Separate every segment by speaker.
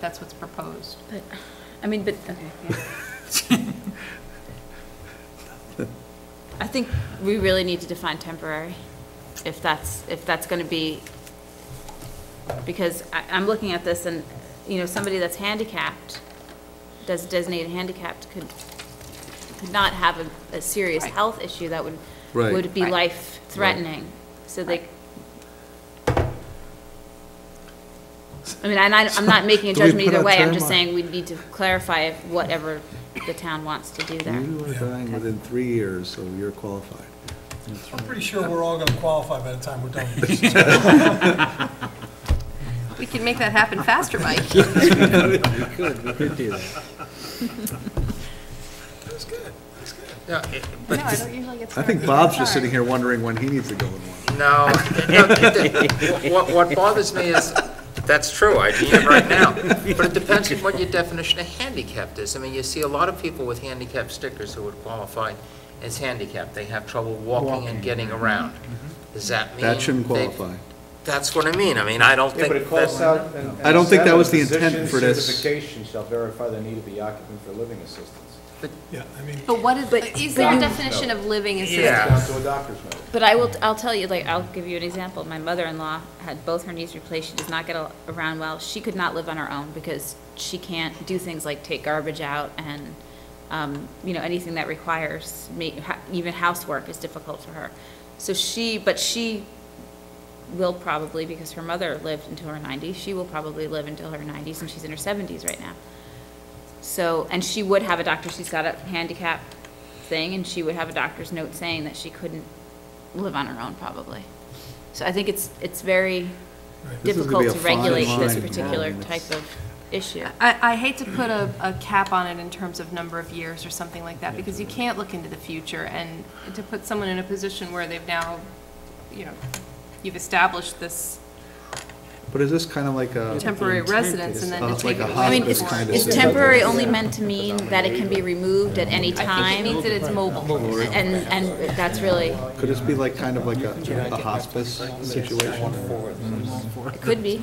Speaker 1: That's what's proposed.
Speaker 2: But, I mean, but, okay, yeah. I think we really need to define temporary, if that's, if that's gonna be, because I, I'm looking at this and, you know, somebody that's handicapped, that's designated handicapped could, could not have a, a serious
Speaker 1: Right.
Speaker 2: health issue that would,
Speaker 3: Right.
Speaker 2: would be
Speaker 1: Right.
Speaker 2: life-threatening, so they. I mean, and I, I'm not making a
Speaker 3: Do we
Speaker 2: judgment
Speaker 3: put
Speaker 2: either
Speaker 3: a
Speaker 2: way, I'm
Speaker 3: time
Speaker 2: just
Speaker 3: on-
Speaker 2: saying we need to clarify if whatever the town wants to do there.
Speaker 3: You are dying within three years, so you're qualified.
Speaker 4: I'm pretty sure we're all going to qualify by the time we're done with this.
Speaker 1: We can make that happen faster, Mike.
Speaker 4: That's good, that's good.
Speaker 5: No, it- but
Speaker 1: I don't usually get
Speaker 3: I think Bob's just sitting here wondering when he needs to go in one.
Speaker 5: no, no, it- what, what bothers me is, that's true, I need it right now. But it depends on what your definition of handicapped is. I mean, you see a lot of people with handicap stickers who would qualify as handicapped. They have trouble walking and getting around. Does that mean?
Speaker 3: That shouldn't
Speaker 5: they-
Speaker 3: qualify.
Speaker 5: That's what I mean. I mean, I don't
Speaker 6: Yeah, but it
Speaker 5: think
Speaker 6: calls
Speaker 5: that,
Speaker 6: out. and-
Speaker 3: I don't think that
Speaker 6: and
Speaker 3: was the
Speaker 6: seven,
Speaker 3: intent
Speaker 6: physician
Speaker 3: for this.
Speaker 6: Certification shall verify the need of the occupant for living assistance.
Speaker 4: Yeah, I mean,
Speaker 1: But what is,
Speaker 2: But-
Speaker 1: is there a definition of living assistant?
Speaker 5: Yeah.
Speaker 6: Down to a doctor's note.
Speaker 2: But I will, I'll tell you, like, I'll give you an example, my mother-in-law had both her knees replaced, she does not get al- around well, she could not live on her own because she can't do things like take garbage out and, um, you know, anything that requires, ma- ha- even housework is difficult for her. So she, but she will probably, because her mother lived until her 90s, she will probably live until her 90s, and she's in her 70s right now. So, and she would have a doctor, she's got a handicap thing, and she would have a doctor's note saying that she couldn't live on her own, probably. So I think it's, it's very
Speaker 3: This is
Speaker 2: difficult
Speaker 3: gonna
Speaker 2: to
Speaker 3: be a fine
Speaker 2: regulate this
Speaker 3: line.
Speaker 2: particular
Speaker 3: Yeah.
Speaker 2: type of issue.
Speaker 1: I, I hate to put a, a cap on it in terms of number of years or something like that, because you can't look into the future, and to put someone in a position where they've now, you know, you've established this
Speaker 3: But is this kind of like a?
Speaker 1: temporary residence, and then
Speaker 3: Oh,
Speaker 1: to
Speaker 3: it's
Speaker 1: take it
Speaker 3: like a
Speaker 2: I
Speaker 1: away.
Speaker 2: mean,
Speaker 3: hospice
Speaker 2: is,
Speaker 1: anymore.
Speaker 3: kind of
Speaker 2: is
Speaker 3: thing.
Speaker 2: temporary only meant to mean that it can be removed at any
Speaker 1: I think it means
Speaker 2: time?
Speaker 1: that it's mobile.
Speaker 2: And, and that's really,
Speaker 3: Could this be like, kind of like a a hospice situation?
Speaker 2: it could be.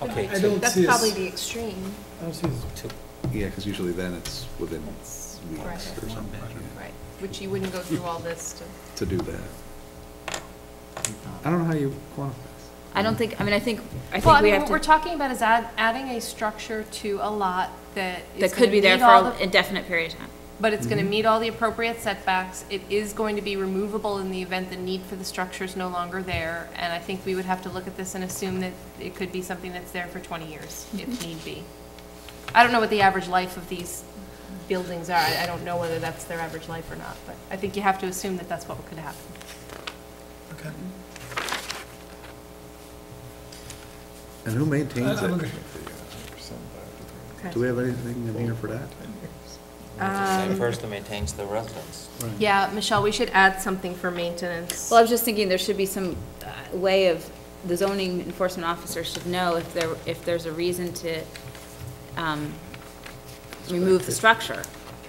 Speaker 5: okay,
Speaker 4: I don't
Speaker 7: That's
Speaker 4: see
Speaker 7: probably
Speaker 4: us,
Speaker 7: the extreme,
Speaker 4: I don't see us
Speaker 3: Yeah, because usually then it's within weeks
Speaker 7: right.
Speaker 3: or something yeah,
Speaker 1: Right, which you wouldn't go through all this to.
Speaker 3: to do that. I don't know how you quantify this.
Speaker 2: I don't think, I mean, I think, I
Speaker 1: Well,
Speaker 2: think
Speaker 1: I
Speaker 2: we
Speaker 1: mean,
Speaker 2: have
Speaker 1: what we're
Speaker 2: to,
Speaker 1: talking about is add, adding a structure to a lot that is
Speaker 2: that
Speaker 1: gonna
Speaker 2: could be there
Speaker 1: meet all
Speaker 2: for an
Speaker 1: the-
Speaker 2: indefinite period of time.
Speaker 1: But it's
Speaker 2: Mm-hmm.
Speaker 1: gonna meet all the appropriate setbacks, it is going to be removable in the event the need for the structure is no longer there, and I think we would have to look at this and assume that it could be something that's there for twenty years, if
Speaker 2: Mm-hmm.
Speaker 1: need be. I don't know what the average life of these buildings are, I I don't know whether that's their average life or not, but I think you have to assume that that's what could happen.
Speaker 4: okay.
Speaker 3: And who maintains
Speaker 4: I- I'm
Speaker 3: it?
Speaker 4: okay.
Speaker 3: Do we have anything in here for that?
Speaker 5: the same person maintains the residence.
Speaker 1: Yeah, Michelle, we should add something for maintenance.
Speaker 2: Well, I was just thinking there should be some uh, way of, the zoning enforcement officer should know if there, if there's a reason to um, remove the structure.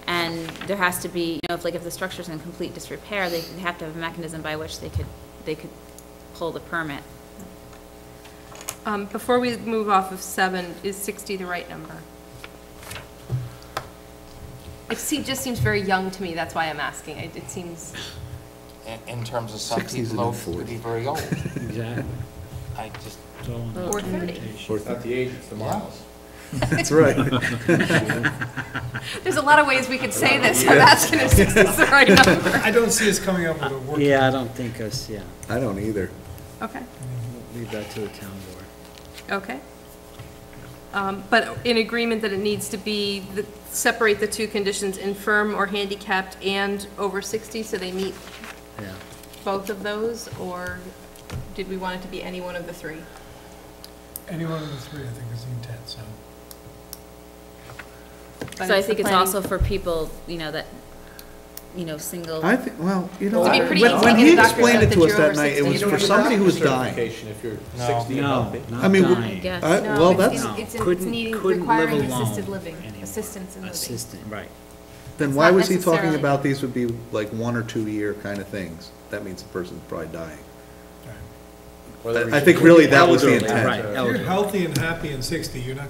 Speaker 2: And there has to be, you know, if like if the structure's in complete disrepair, they they have to have a mechanism by which they could, they could pull the permit.
Speaker 1: Um, Before we move off of seven, is 60 the right number? It se- just seems very young to me, that's why I'm asking. It it seems,
Speaker 5: In, in terms of some
Speaker 3: 60s and
Speaker 5: people, old could
Speaker 3: 40s.
Speaker 5: be very old.
Speaker 8: Exactly.
Speaker 5: I just,
Speaker 1: or 30.
Speaker 6: It's not the age, it's the miles.
Speaker 3: That's right.
Speaker 1: There's a lot of ways we could say this, I'm asking if 60 is the right number.
Speaker 4: I don't see us coming up with a word.
Speaker 8: Yeah, I don't think us, yeah.
Speaker 3: I don't either.
Speaker 1: Okay,
Speaker 8: Leave that to the town board.
Speaker 1: okay. Um, But in agreement that it needs to be, the- separate the two conditions, infirm or handicapped and over 60, so they meet
Speaker 8: Yeah.
Speaker 1: both of those? Or did we want it to be any one of the three?
Speaker 4: Any one of the three, I think, is the intent, so.
Speaker 1: But
Speaker 2: So I
Speaker 1: the
Speaker 2: think it's
Speaker 1: planning-
Speaker 2: also for people, you know, that, you know, single.
Speaker 3: I think, well, you know,
Speaker 1: It'd
Speaker 3: when
Speaker 1: be pretty easy to
Speaker 3: when
Speaker 1: get
Speaker 3: he
Speaker 1: a doctor's
Speaker 3: explained
Speaker 1: note
Speaker 3: it
Speaker 1: that
Speaker 3: to us
Speaker 1: you're
Speaker 3: that
Speaker 1: over
Speaker 3: night, it
Speaker 1: 60.
Speaker 3: was
Speaker 1: You don't
Speaker 3: for
Speaker 1: need a
Speaker 3: somebody who was dying.
Speaker 6: Certification if you're
Speaker 5: No.
Speaker 6: 60 and
Speaker 8: No,
Speaker 6: up.
Speaker 3: I
Speaker 8: not
Speaker 3: mean, we-
Speaker 8: dying.
Speaker 2: Yes.
Speaker 3: I-
Speaker 7: No,
Speaker 3: Well,
Speaker 7: it's-
Speaker 3: that's,
Speaker 7: it's- it's
Speaker 8: Couldn't-
Speaker 7: needing-
Speaker 8: couldn't live
Speaker 7: requiring assisted
Speaker 8: alone
Speaker 7: living,
Speaker 8: anymore.
Speaker 7: assistance in living.
Speaker 8: Assistant, right.
Speaker 3: then
Speaker 1: It's
Speaker 3: why
Speaker 1: not
Speaker 3: was he talking
Speaker 1: necessarily-
Speaker 3: about these would be like one or two year kind of things? That means the person's probably dying.
Speaker 6: Whether we
Speaker 3: I
Speaker 6: should
Speaker 3: think
Speaker 6: put
Speaker 3: really
Speaker 6: the
Speaker 3: that was the
Speaker 6: elderly
Speaker 3: intent.
Speaker 6: as
Speaker 8: Right,
Speaker 6: a-
Speaker 4: If you're
Speaker 8: elderly.
Speaker 4: healthy and happy and 60, you're not